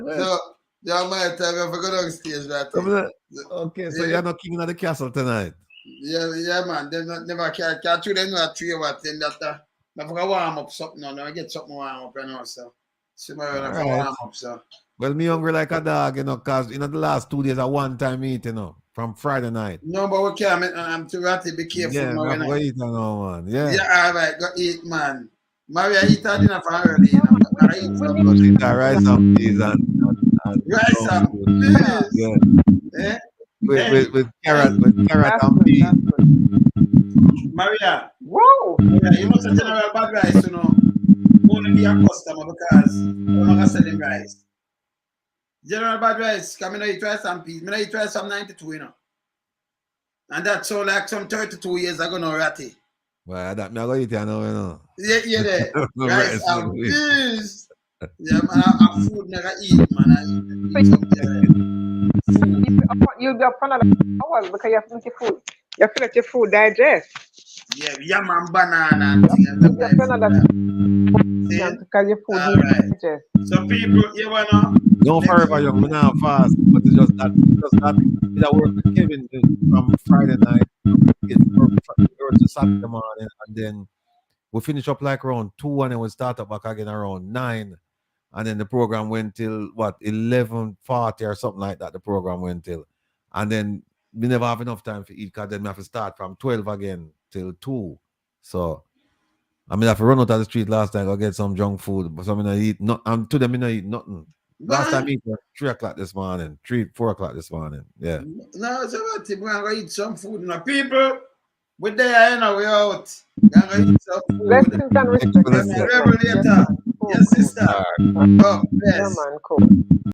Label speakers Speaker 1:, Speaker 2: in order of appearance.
Speaker 1: So, y'all might tell me if I go down stage that
Speaker 2: Come
Speaker 1: thing.
Speaker 2: on. Okay, so
Speaker 1: eh,
Speaker 2: you're not king of the castle tonight.
Speaker 1: Yeah, yeah, man. They not, never can catch you. They know a three hour thing that uh, I forgot warm up something. Now, I get something warm up, you know. So, see my right.
Speaker 2: Alright.
Speaker 1: warm up. So,
Speaker 2: Well, me hungry like a dog, you know, cause you know the last two days I one time eat, you know, from Friday night.
Speaker 1: no, but we can't. make- I'm too ratty. Be careful.
Speaker 2: yeah,
Speaker 1: now,
Speaker 2: I
Speaker 1: you know.
Speaker 2: go eat and all, man. Yeah,
Speaker 1: Yeah, all right, go eat, man. Maria, eat that dinner for early, you know. I eat some good.
Speaker 2: Eat a rice and peas and, and, and
Speaker 1: Rice and
Speaker 2: peas. Yeah,
Speaker 1: Eh?
Speaker 2: with, with, with carrot, with carrot and peas.
Speaker 1: Maria,
Speaker 3: Whoa!
Speaker 1: Maria, you must have general bad rice, you know. Only be a customer because I'm not selling rice. General bad rice, come in, eat rice and peas. Me no eat rice from 92, you know. And that's so like some 32 years ago, no ratty.
Speaker 2: Well, that me I go eat and all, you know.
Speaker 1: Yeah, yeah, there.
Speaker 2: No
Speaker 1: Rice
Speaker 2: rice,
Speaker 1: and
Speaker 2: no peas.
Speaker 1: peas. Yeah, man, I, I food never eat, man. I eat,
Speaker 3: Fish.
Speaker 1: something,
Speaker 3: You'll be up- you'll be up another hours because you have to make your food. You have to let your food digest.
Speaker 1: yeah, yam and banana. And
Speaker 3: You have to
Speaker 1: things.
Speaker 3: another
Speaker 1: See?
Speaker 3: because your food
Speaker 1: All
Speaker 3: needs
Speaker 1: right.
Speaker 3: to digest.
Speaker 1: So people, you wanna
Speaker 2: No forever young, me not fast, but it's just that, just that, it I work with Kevin eh, from Friday night, it's from Fri- or to Saturday morning, and then we finish up like around two, and then we start up back again around nine, and then the program went till what eleven forty or something like that. The program went till, and then we never have enough time to eat, cause then we have to start from twelve again till two, so. I mean, I have to run out of the street last time. Go get some junk food, but so I'm gonna eat. Not, I'm to them, I eat nothing. Last time
Speaker 1: no,
Speaker 2: it was three o'clock this morning, three, four o'clock this morning. Yeah.
Speaker 1: no, so what if we gonna eat some food now. People, we there, you know, we out. We gonna eat some food.
Speaker 3: Blessings and respect.
Speaker 2: Excellent.
Speaker 3: Yes,
Speaker 1: Reverend,
Speaker 3: man.
Speaker 1: later.
Speaker 3: Cool,
Speaker 1: Yes,
Speaker 3: cool.
Speaker 1: sister.
Speaker 2: All right.
Speaker 1: Oh,
Speaker 3: Yeah,
Speaker 1: yes.
Speaker 3: man, cool.